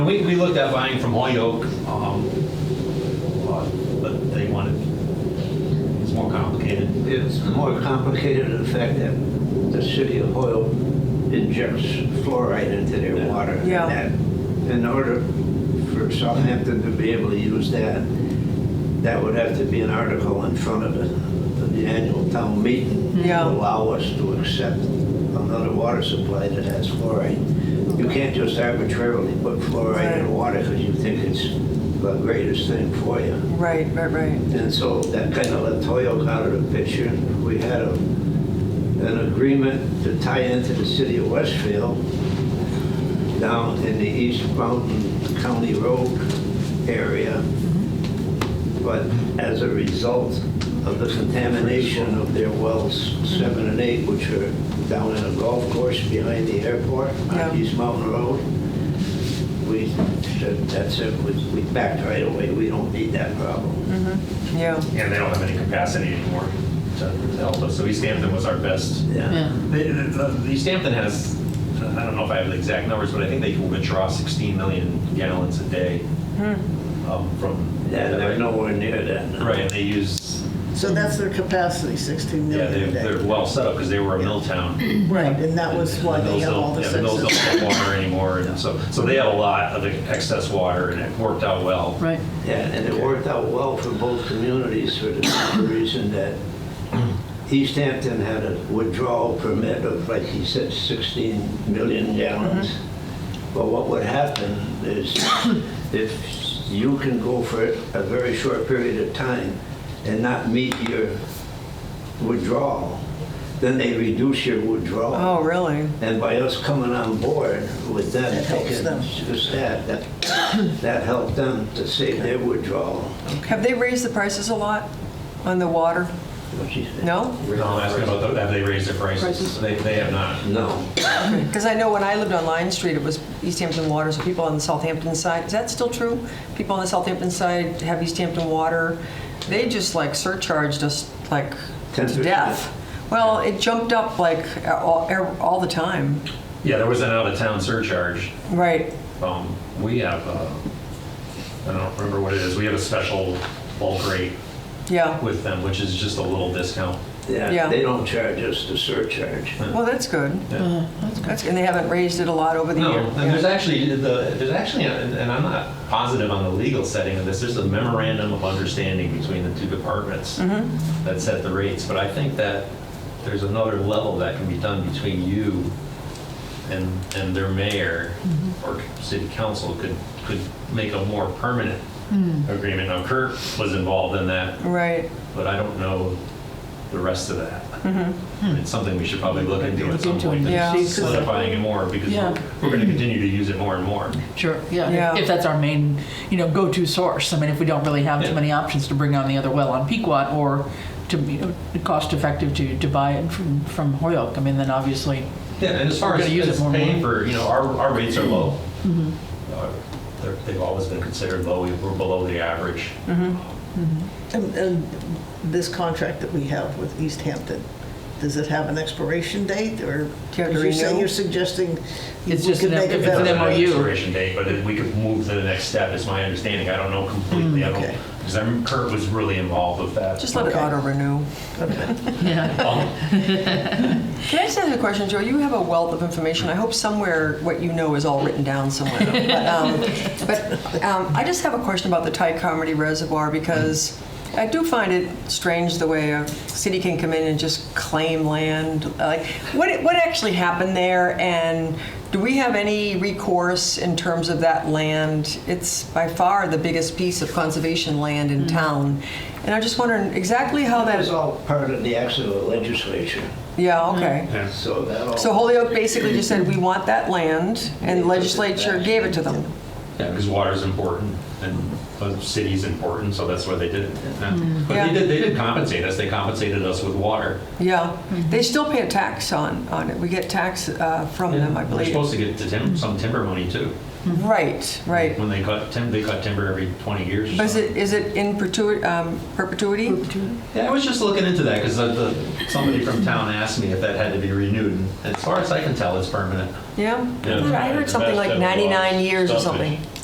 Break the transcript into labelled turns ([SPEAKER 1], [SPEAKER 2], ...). [SPEAKER 1] We, we looked at buying from Holyoke, um, uh, but they wanted, it's more complicated.
[SPEAKER 2] It's more complicated in the fact that the city of Hoyle injects fluoride into their water. and
[SPEAKER 3] Yeah.
[SPEAKER 2] that In order for Southampton to be able to use that, that would have to be an article in front of the, of the annual town meeting. to
[SPEAKER 3] Yeah.
[SPEAKER 2] Allow us to accept another water supply that has fluoride. You can't just arbitrarily put fluoride
[SPEAKER 3] Right.
[SPEAKER 2] in water because you think it's the greatest thing for you.
[SPEAKER 3] Right, right, right.
[SPEAKER 2] And so that kind of let Toyo out of the picture. We had a, an agreement to tie into the city of Westfield down in the East Mountain County Road area. But as a result of the contamination of their wells seven and eight, which are down in a golf course behind the airport
[SPEAKER 3] Yeah.
[SPEAKER 2] on East Mountain Road, we said, that's it, we we backed right away. We don't need that problem.
[SPEAKER 3] Yeah.
[SPEAKER 1] And they don't have any capacity anymore to to help us, so East Hampton was our best.
[SPEAKER 2] Yeah.
[SPEAKER 1] They- the- the- East Hampton has, I don't know if I have the exact numbers, but I think they can withdraw 16 million gallons a day um, from.
[SPEAKER 2] Yeah, they're nowhere near that. now.
[SPEAKER 1] Right, and they use,
[SPEAKER 4] So that's their capacity, 16
[SPEAKER 1] yeah,
[SPEAKER 4] million
[SPEAKER 1] they're,
[SPEAKER 4] a
[SPEAKER 1] they're
[SPEAKER 4] day.
[SPEAKER 1] well set up because they were a mill town.
[SPEAKER 4] Right, and that was why
[SPEAKER 1] The
[SPEAKER 4] they
[SPEAKER 1] mills
[SPEAKER 4] have
[SPEAKER 1] don't-
[SPEAKER 4] all this
[SPEAKER 1] yeah, The mills don't
[SPEAKER 4] excess.
[SPEAKER 1] have water anymore, and so, so they had a lot of excess water, and it worked out well.
[SPEAKER 5] Right.
[SPEAKER 2] Yeah, and it worked out well for both communities for the simple reason that East Hampton had a withdrawal permit of, like he said, 16 million gallons. But what would happen is if you can go for a very short period of time and not meet your withdrawal, then they reduce your withdrawal.
[SPEAKER 3] Oh, really?
[SPEAKER 2] And by us coming on board with them,
[SPEAKER 4] That helps
[SPEAKER 2] taking
[SPEAKER 4] them.
[SPEAKER 2] just that, that, that helped them to save their withdrawal.
[SPEAKER 3] Have they raised the prices a lot on the water?
[SPEAKER 2] What she said.
[SPEAKER 3] No?
[SPEAKER 1] No, I'm asking about, the- have they raised their prices? They, they have not.
[SPEAKER 2] No.
[SPEAKER 3] Because I know when I lived on Lion Street, it was East Hampton Water, so people on the Southampton side, is that still true? People on the Southampton side have East Hampton Water. They just like surcharged us like to
[SPEAKER 2] 10%.
[SPEAKER 3] death. Well, it jumped up like all, er, all the time.
[SPEAKER 1] Yeah, there was an out-of-town surcharge.
[SPEAKER 3] Right.
[SPEAKER 1] Um, We have, uh, I don't remember what it is, we have a special bulk rate
[SPEAKER 3] Yeah.
[SPEAKER 1] with them, which is just a little discount.
[SPEAKER 2] Yeah,
[SPEAKER 3] Yeah.
[SPEAKER 2] they don't charge us the surcharge.
[SPEAKER 3] Well, that's good.
[SPEAKER 4] Uh-huh.
[SPEAKER 1] Yeah.
[SPEAKER 3] That's, and they haven't raised it a lot over the
[SPEAKER 1] No,
[SPEAKER 3] years.
[SPEAKER 1] and there's actually, the there's actually, and and I'm not positive on the legal setting of this, there's a memorandum of understanding between the two departments that set the rates, but I think that there's another level that can be done between you and, and their mayor or city council could, could make a more permanent agreement. Now Kurt was involved in that
[SPEAKER 3] Right.
[SPEAKER 1] but I don't know the rest of that. It's something we should probably Mm-hmm. look into at some point,
[SPEAKER 3] Yeah.
[SPEAKER 1] and solidifying it more, because
[SPEAKER 5] Yeah.
[SPEAKER 1] we're going to continue to use it more and more.
[SPEAKER 5] Sure, yeah.
[SPEAKER 3] Yeah.
[SPEAKER 5] If that's our main, you know, go-to source. I mean, if we don't really have
[SPEAKER 1] Yeah.
[SPEAKER 5] too many options to bring on the other well on Pequot or to, you know, cost-effective to, to buy it from, from Hoyoke, I mean, then obviously,
[SPEAKER 1] Yeah, and as far
[SPEAKER 5] We're
[SPEAKER 1] as
[SPEAKER 5] gonna use it
[SPEAKER 1] as
[SPEAKER 5] more and
[SPEAKER 1] paying
[SPEAKER 5] more. Mm-hmm.
[SPEAKER 1] for, you know, our, our rates are low. Uh, they're- They've always been considered low, We- we're below the average.
[SPEAKER 4] And and this contract that we have with East Hampton, does it have an expiration date or?
[SPEAKER 3] Do you have to
[SPEAKER 4] Are you saying
[SPEAKER 3] renew?
[SPEAKER 4] you're suggesting you
[SPEAKER 5] It's just
[SPEAKER 4] could
[SPEAKER 5] an-
[SPEAKER 4] make a
[SPEAKER 5] it's an
[SPEAKER 4] better-
[SPEAKER 1] Not an
[SPEAKER 5] MOU.
[SPEAKER 1] Expiration date, but it- we could move to the next step, is my understanding, I don't know completely,
[SPEAKER 5] Mm,
[SPEAKER 1] I don't,
[SPEAKER 4] okay.
[SPEAKER 1] because I'm, Kurt was really involved with that.
[SPEAKER 3] Just let it
[SPEAKER 4] Okay.
[SPEAKER 3] auto renew.
[SPEAKER 5] yeah.
[SPEAKER 1] Um,
[SPEAKER 3] Can I just ask you a question, Joe? You have a wealth of information. I hope somewhere what you know is all written down somewhere. But, um, but um, I just have a question about the Thai Comedy Reservoir because I do find it strange the way a city can come in and just claim land. Like, what what actually happened there, and do we have any recourse in terms of that land? It's by far the biggest piece of conservation land in town, and I'm just wondering exactly how
[SPEAKER 2] That
[SPEAKER 3] that.
[SPEAKER 2] is all part of the action of the legislature.
[SPEAKER 3] Yeah. Okay.
[SPEAKER 2] So that all.
[SPEAKER 3] So Holyoke basically just said, we want that land, and the legislature gave it to them.
[SPEAKER 1] Yeah, because water's important and the city's important, so that's why they did it.
[SPEAKER 5] Mm.
[SPEAKER 1] But
[SPEAKER 3] Yeah.
[SPEAKER 1] they did, they did compensate us, they compensated us with water.
[SPEAKER 3] Yeah, they still pay a tax on, on it. We get tax uh, from them, I
[SPEAKER 1] We're
[SPEAKER 5] Oh,
[SPEAKER 3] believe.
[SPEAKER 1] supposed to get to tim- some timber money too.
[SPEAKER 3] Right, right.
[SPEAKER 1] When they cut timber, they cut timber every 20 years or
[SPEAKER 3] But is
[SPEAKER 1] something.
[SPEAKER 3] it, is it in perpetuity, um, perpetuity?
[SPEAKER 1] Yeah, I was just looking into that because somebody from town asked me if that had to be renewed. And as far as I can tell, it's permanent.
[SPEAKER 3] Yeah?
[SPEAKER 6] Yeah.
[SPEAKER 3] I heard something like
[SPEAKER 6] Best ever
[SPEAKER 3] 99
[SPEAKER 6] was
[SPEAKER 3] years or
[SPEAKER 6] stumpage.
[SPEAKER 3] something.